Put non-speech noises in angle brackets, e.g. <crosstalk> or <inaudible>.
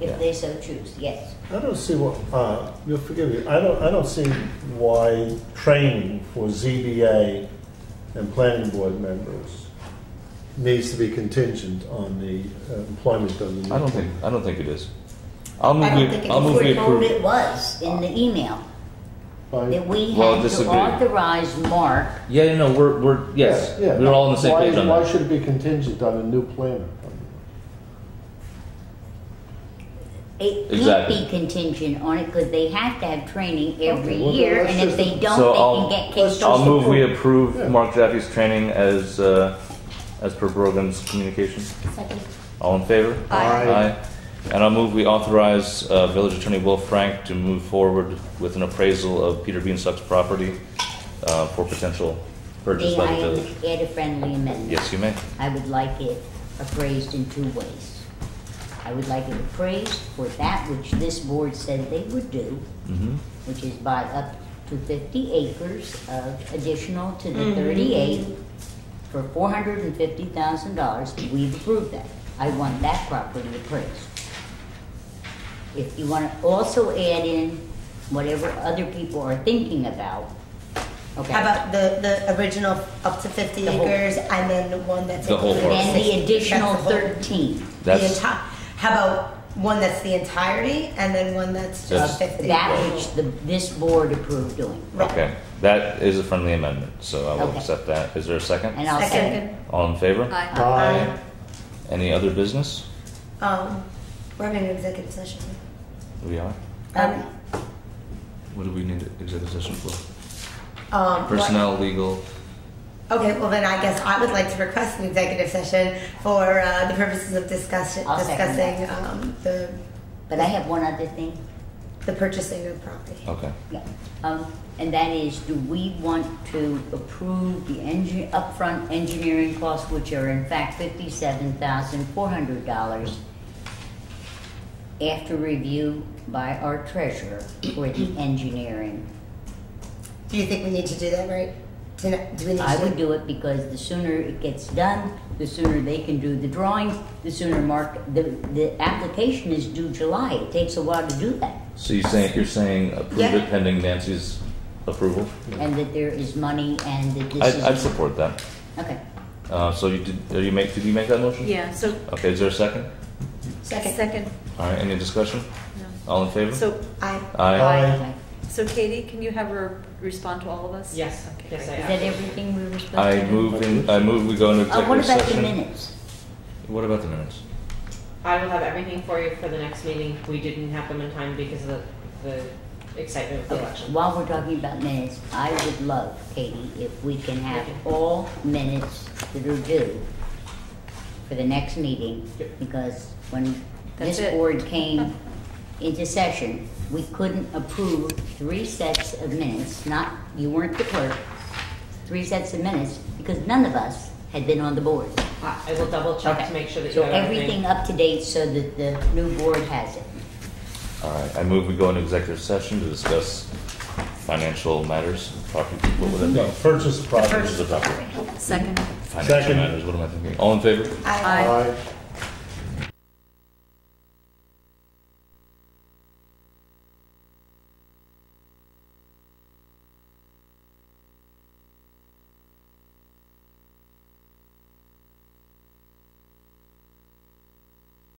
if Yeah. they so choose, yes. I don't see what, uh, you'll forgive me, I don't, I don't see why training for ZBA and planning board members needs to be contingent on the uh, employment of the. I don't think, uh, I don't think it is. I'll move, I don't think we- I'll move it- we we were told approve. it was in Ah. the email, that Why- we Well, had to disagree. authorize Mark Yeah, yeah, no, we're, we're, yes, Yeah, yeah. we're all on the same Why- page on Why that. should it be contingent on a new planner? It can't Exactly. be contingent on it because they have to have training every Okay, well, year, let's and if just- they don't, So they I'll- can get kicked I'll off. move we Yeah. approve Mark Jaffe's training as, uh, as per Brogan's communication. Second. All in favor? Aye. And I'll move we authorize uh, Village Attorney Will Frank to move forward with an appraisal of Peter Beanstock's property uh, for potential May purchase by I the village. add a friendly amendment? Yes, you may. I would like it appraised in two ways. I would like it appraised for that which this board said they would do, Mhm. which is buy up to fifty acres of additional to Mm-hmm. the thirty-eight for four hundred and fifty thousand dollars, we've approved that. I want that property appraised. If you wanna also add in whatever other people are thinking about, okay? How about the, the original up to 50 The whole- acres and then the one that's The whole included? parcel. And the additional That's the whole- thirteen. The That's, entire, how about one that's the entirety and then one that's just That's- 50? That which the, this board approved doing. Right. okay. That is a friendly amendment, so I will Okay. accept that. Is there a second? And I'll Second. second. All in favor? Aye. Any other business? Um, we're having an executive session. We are. Um, What do we need executive session for? um, what- Personnel, legal. Okay, well then I guess I would like to request an executive session for uh, the purposes of discussion, I'll second discussing um, the, But I have one other thing, the purchasing of property. Okay. yeah, um, and that is, do we want to approve the engi- upfront engineering costs, which are in fact fifty-seven thousand four hundred dollars after review by our treasurer for <clears throat> the engineering? Do you think we need to do that right? Tonight- Do we need to? I would do it because the sooner it gets done, the sooner they can do the drawings, the sooner Mark, the, the application is due July, it takes a while to do that. So you're saying, you're saying approve Yeah. it pending Nancy's approval? and that there is money and that this I, is. I'd support that. Okay, Uh, so you did, did you make, did you make that motion? Yeah, so, Okay, is there a second? Second. second, All right, any discussion? no. All in favor? So, I, Aye. okay. Uh, so Katie, can you have her respond to all of us? Yes. Okay, Yes, great. I Is am. that everything we were supposed to? I do? move in, I move we go into Uh, what about executive the session. minutes? What about the minutes? I will have everything for you for the next meeting. We didn't have them in time because of the the excitement of the Okay, election. While we're talking about minutes, I would love, Katie, if we can have all minutes that are due for the next meeting, Yep. because when That's this it. board came into session, we couldn't approve three sets of minutes, not, you weren't the clerk, three sets of minutes, because none of us had been on the board. I I will double check to Okay. make sure that you So have everything. everything up to date so that the new board has it. All right, I move we go into executive session to discuss financial matters, property, what would that No, purchase be? This property. is a property. Second. Financial Second. matters, what am I thinking? All in favor? I, Aye. Aye.